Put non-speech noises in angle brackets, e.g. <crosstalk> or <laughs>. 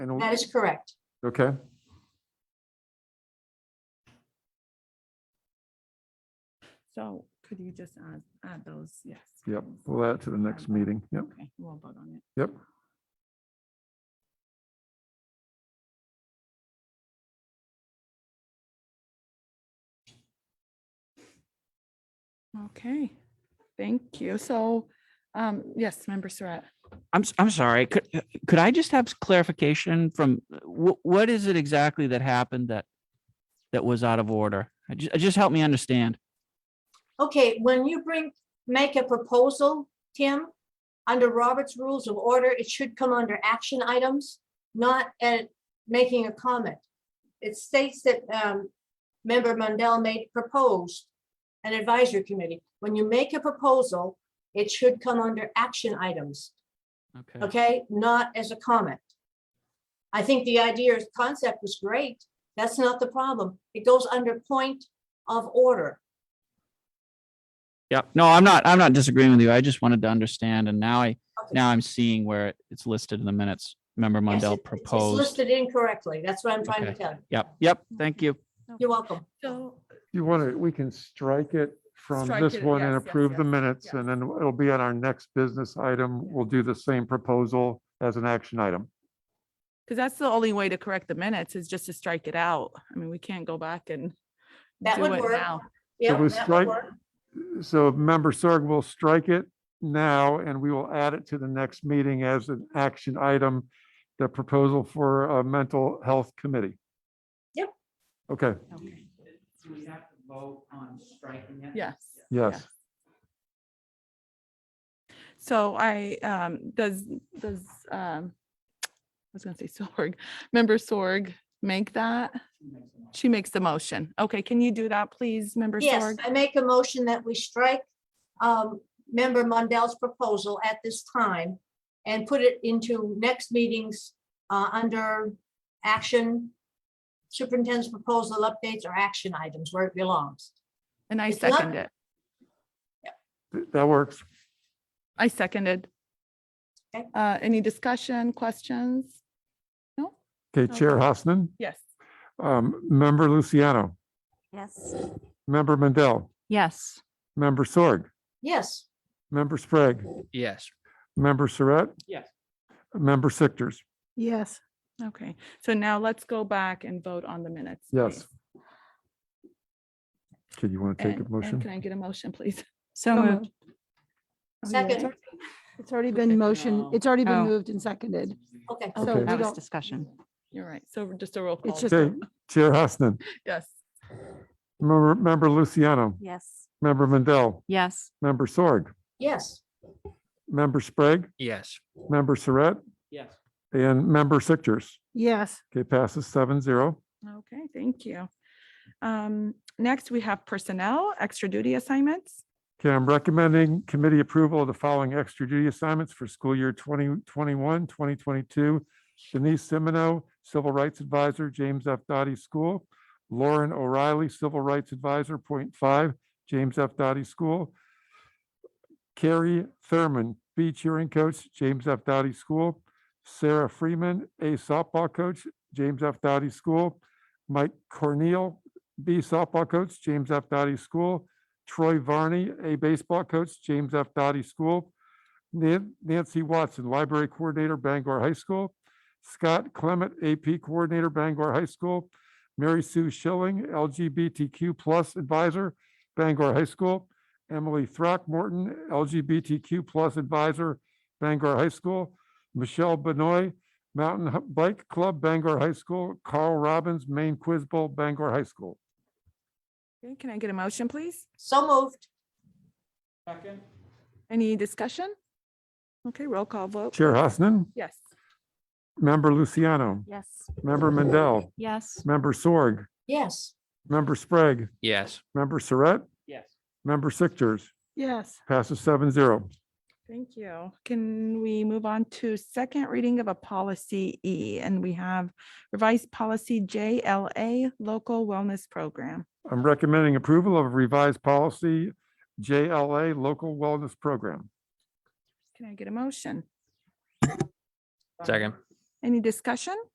And, That is correct. okay. So could you just add, add those? Yes. Yep, please. we'll add it to the next meeting. Yep, Okay, we'll vote on it. yep. Okay, thank you. So, um, yes, member Surratt. I'm, s- I'm sorry. Could, uh, could I just have s- clarification from what, what is it exactly that happened that, that was out of order? I ju- uh, Just help me understand. Okay, when you bring, make a proposal, Tim, under Robert's Rules of Order, it should come under action items, not at making a comment. It states that um, Member Mundell made proposed an advisory committee. When you make a proposal, it should come under action items, okay? Not as a comment. I think the idea, is- concept was great. That's not the problem. It goes under point of order. Yep. No, I'm not, I'm not disagreeing with you. I just wanted to understand and now I, Okay. now I'm seeing where it- it's listed in the minutes. Member Yes, it- it's- Mundell It's proposed. listed incorrectly. That's what I'm trying to Okay. tell you. Yep, yep. Thank you. You're welcome. So, You want to, we can strike it from Strike this it, one and yes, yes, approve the yes, minutes, and then it'll be on our next business item. We'll do the same proposal as an action item. because that's the only way to correct the minutes is just to strike it out. I mean, we can't go back and That do would it work. now. Yeah, was that would strike- work. So member Sorg will strike it now, and we will add it to the next meeting as an action item, the proposal for a mental health committee. Yep. Okay, Okay. Do we have to vote on striking it? Yes. yes. So I, um, does, does, um, I was gonna say Sorg, member Sorg make that? She makes the motion. Okay, can you do that, please, member Yes, Sorg? I make a motion that we strike um, member Mundell's proposal at this time and put it into next meetings uh, under action superintendent's proposal updates or action items where it belongs. And I It's not- second it. Th- That works. I seconded. Okay. Uh, any discussion, questions? Okay, Chair Hosnan, Yes. um, member Luciano, Yes. member Mendel, Yes. member Sorg, Yes, member Sprague, Yes. member Saret, Yes. member Sichters. Yes. Okay, so now let's go back and vote on the minutes. Yes. please. Okay, you want to take And- a and Can motion? I get a motion, please? <laughs> So So moved. Oh, second, It's already been motion, it's already Oh. been moved and seconded. okay. So Okay. we That was don't, discussion. You're right. So just a roll call. it's just, Okay, Chair Hosnan, Yes. member, member Luciano, Yes. member Mendel, Yes. member Sorg, Yes, member Sprague, Yes. member Saret, Yes. and member Sichters. yes, Okay, passes seven zero. Okay, thank you. Um, next we have personnel, extra duty assignments. Okay, I'm recommending committee approval of the following extra duty assignments for school year 2021, 2022. Denise Simino, Civil Rights Advisor, James F. Dottie School. Lauren O'Reilly, Civil Rights Advisor, Point Five, James F. Dottie School. Carrie Thurman, B cheering coach, James F. Dottie School. Sarah Freeman, A softball coach, James F. Dottie School. Mike Corneal, B softball coach, James F. Dottie School. Troy Varney, a baseball coach, James F. Dottie School. Nan- Nancy Watson, library coordinator, Bangor High School. Scott Clement, AP coordinator, Bangor High School. Mary Sue Schilling, LGBTQ plus advisor, Bangor High School. Emily Throckmorton, LGBTQ plus advisor, Bangor High School. Michelle Benoit, Mountain Hu- Bike Club, Bangor High School. Carl Robbins, Maine Quiz Bowl, Bangor High School. Okay, Can I get a motion, please? so moved. Second? Any discussion? Okay, roll call vote. Chair Hosnan, Yes. member Luciano. Yes. Member Mendel, Yes. member Sorg, Yes, member Sprague, Yes. member Saret, Yes. member Sichters, yes. passes seven zero. Thank you. Can we move on to second reading of a policy E? And we have revised policy JLA, local wellness program. I'm recommending approval of revised policy JLA Local Wellness Program. Can I get a motion? Second. Any discussion?